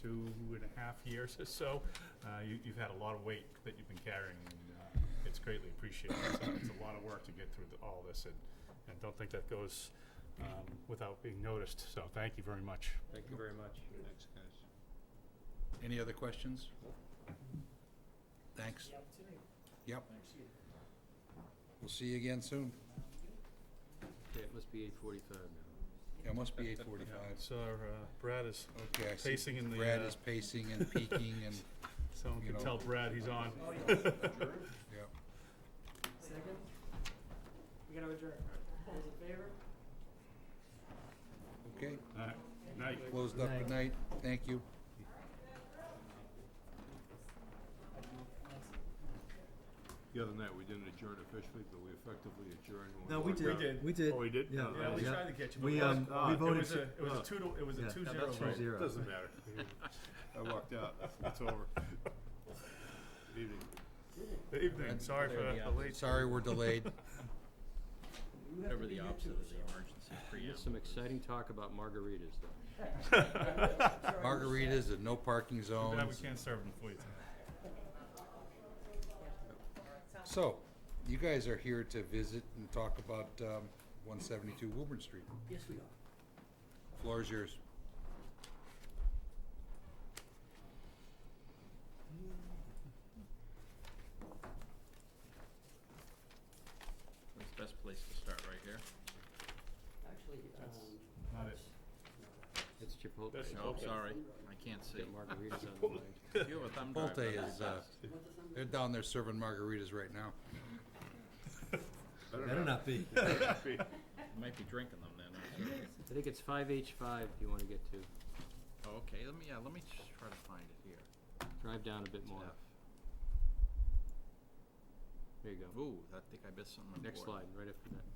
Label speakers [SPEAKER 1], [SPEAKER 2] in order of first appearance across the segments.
[SPEAKER 1] two and a half years or so. Uh, you, you've had a lot of weight that you've been carrying, and uh, it's greatly appreciated. So it's a lot of work to get through th- all this, and, and don't think that goes um, without being noticed. So thank you very much.
[SPEAKER 2] Thank you very much.
[SPEAKER 3] Thanks, guys. Any other questions? Thanks. Yep. We'll see you again soon.
[SPEAKER 2] Yeah, it must be eight forty-five now.
[SPEAKER 3] It must be eight forty-five.
[SPEAKER 1] So uh, Brad is,
[SPEAKER 3] Okay, I see
[SPEAKER 1] Pacing in the,
[SPEAKER 3] Brad
[SPEAKER 1] uh,
[SPEAKER 3] is pacing and peeking and,
[SPEAKER 1] someone
[SPEAKER 3] You
[SPEAKER 1] can
[SPEAKER 3] know.
[SPEAKER 1] tell Brad he's on.
[SPEAKER 4] Oh,
[SPEAKER 3] yeah.
[SPEAKER 5] Second? We gotta adjourn. All those in favor?
[SPEAKER 3] Okay,
[SPEAKER 1] All right. Night.
[SPEAKER 3] closed up at night. Thank you.
[SPEAKER 6] The other night, we didn't adjourn officially, but we effectively adjourned. when
[SPEAKER 4] No, we
[SPEAKER 6] walked
[SPEAKER 4] did.
[SPEAKER 6] out.
[SPEAKER 4] We did.
[SPEAKER 1] Oh, we did?
[SPEAKER 4] Yeah.
[SPEAKER 1] Yeah, we
[SPEAKER 4] yeah.
[SPEAKER 1] tried to catch him.
[SPEAKER 4] We,
[SPEAKER 1] It was
[SPEAKER 4] um,
[SPEAKER 6] caught.
[SPEAKER 4] we
[SPEAKER 6] It
[SPEAKER 1] It
[SPEAKER 4] voted.
[SPEAKER 1] was a, it was
[SPEAKER 4] uh,
[SPEAKER 1] a two to, it was a
[SPEAKER 4] yeah,
[SPEAKER 1] two
[SPEAKER 4] that-
[SPEAKER 1] zero.
[SPEAKER 4] that's two
[SPEAKER 1] vote.
[SPEAKER 4] zero.
[SPEAKER 1] Doesn't matter.
[SPEAKER 6] I walked out. It's over. Good evening.
[SPEAKER 1] Good evening, sorry for
[SPEAKER 2] Clear the
[SPEAKER 1] the late.
[SPEAKER 3] Sorry we're delayed.
[SPEAKER 5] You have to be here too, so-
[SPEAKER 2] There's some exciting talk about margaritas though.
[SPEAKER 3] Margaritas and no parking
[SPEAKER 1] Too bad we
[SPEAKER 3] zones.
[SPEAKER 1] can't serve them for you tonight.
[SPEAKER 3] So, you guys are here to visit and talk about, um, one seventy-two Woburn Street.
[SPEAKER 5] Yes, we are.
[SPEAKER 3] Floor is yours.
[SPEAKER 7] That's the best place to start right here.
[SPEAKER 5] Actually, um.
[SPEAKER 1] Not it.
[SPEAKER 2] It's Chipotle.
[SPEAKER 1] That's
[SPEAKER 7] Oh,
[SPEAKER 1] Okay.
[SPEAKER 7] sorry, I can't see.
[SPEAKER 2] Get margaritas on the way.
[SPEAKER 7] If you have a thumb drive,
[SPEAKER 3] Chipotle
[SPEAKER 7] that'd be
[SPEAKER 3] is, uh,
[SPEAKER 7] best.
[SPEAKER 5] what's the thumb?
[SPEAKER 3] They're down there serving margaritas right now.
[SPEAKER 4] Better not be.
[SPEAKER 7] You Might be drinking them then. I'm sorry.
[SPEAKER 2] I think it's five H five you wanna get to.
[SPEAKER 7] Oh, okay, let me, yeah, let me just try to find it here.
[SPEAKER 2] Drive down a bit
[SPEAKER 7] It's
[SPEAKER 2] more.
[SPEAKER 7] F.
[SPEAKER 2] There you go.
[SPEAKER 7] Ooh, I think I missed something important.
[SPEAKER 2] Next slide, right after that.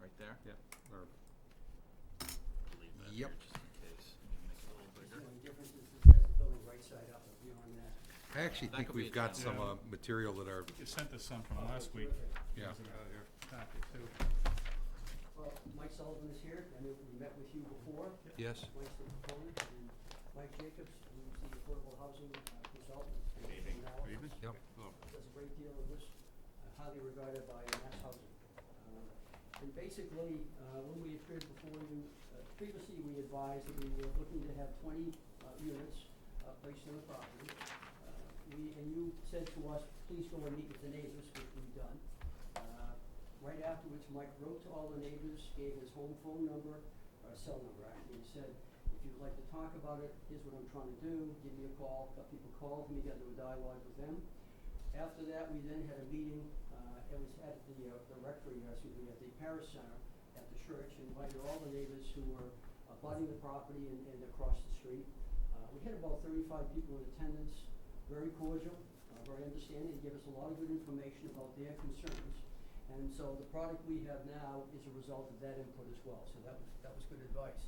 [SPEAKER 7] Right there?
[SPEAKER 2] Yep. Or
[SPEAKER 7] Leave that
[SPEAKER 3] Yep.
[SPEAKER 7] here just in case. Let me Make it a little
[SPEAKER 5] The
[SPEAKER 7] bigger.
[SPEAKER 5] only difference is it says the building right side up, if you're on that.
[SPEAKER 3] I actually
[SPEAKER 7] That
[SPEAKER 3] think
[SPEAKER 7] could be
[SPEAKER 3] we've got
[SPEAKER 7] attached.
[SPEAKER 3] some,
[SPEAKER 1] Yeah.
[SPEAKER 3] uh, material that are,
[SPEAKER 1] You sent us some from last week.
[SPEAKER 3] yeah.
[SPEAKER 1] Wasn't out of your copy, too.
[SPEAKER 5] Well, Mike Sullivan is here, I know we met with you before,
[SPEAKER 3] Yes,
[SPEAKER 5] Mike's the proponent, and Mike Jacobs, who's the affordable housing uh, consultant. Good
[SPEAKER 1] Good evening.
[SPEAKER 3] yep.
[SPEAKER 5] does a great deal of this, uh, highly regarded by Mass Housing. Uh, And basically, uh, when we appeared before you, uh, previously we advised that we were looking to have twenty uh, units uh, placed on the property. Uh, We, and you said to us, please go and meet with the neighbors, which we've done. Uh, Right afterwards, Mike wrote to all the neighbors, gave his home phone number, or cell number actually, and said, if you'd like to talk about it, here's what I'm trying to do, give me a call. Got people called, and we got into a dialogue with them. After that, we then had a meeting, uh, it was at the, uh, the rectory, uh, excuse me, at the parish center at the church, invited all the neighbors who were abutting the property and, and across the street. Uh, we had about thirty-five people in attendance, very cordial, uh, very understanding, gave us a lot of good information about their concerns. And so the product we have now is a result of that input as well, so that was, that was good advice.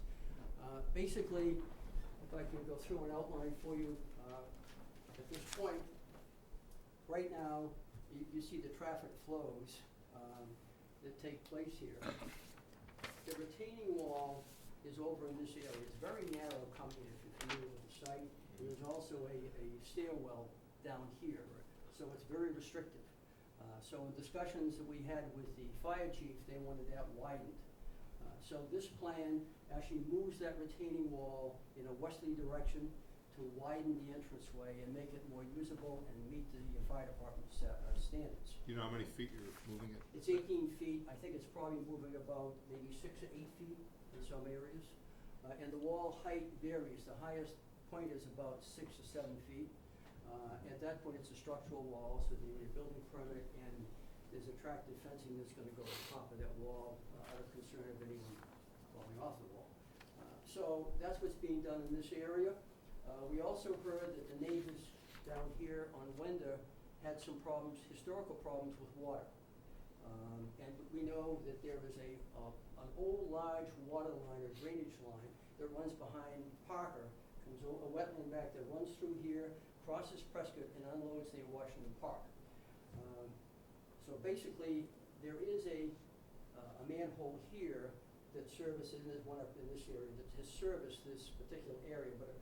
[SPEAKER 5] Uh, basically, if I can go through an outline for you, uh, at this point, right now, you, you see the traffic flows, um, that take place here. The retaining wall is over in this area, it's very narrow coming in, if you're familiar with the site. And There's also a, a stairwell down here, so it's very restrictive. Uh, so in discussions that we had with the fire chief, they wanted that widened. Uh, so this plan actually moves that retaining wall in a westerly direction to widen the entranceway and make it more usable and meet the fire department's, uh, standards.
[SPEAKER 6] You know how many feet you're moving it?
[SPEAKER 5] It's eighteen feet, I think it's probably moving about maybe six or eight feet in some areas. Uh, and the wall height varies, the highest point is about six or seven feet. Uh, at that point, it's a structural wall, so they need a building permit and there's attractive fencing that's gonna go on top of that wall, uh, out of concern of anyone falling off the wall. Uh, So that's what's being done in this area. Uh, We also heard that the neighbors down here on Wender had some problems, historical problems with water. Um, and we know that there is a, uh, an old large water line or drainage line that runs behind Parker, comes o- a wetland back that runs through here, crosses Prescott and unloads near Washington Park. Um, so basically, there is a, uh, a manhole here that services, and there's one up in this area, that has serviced this particular area, but it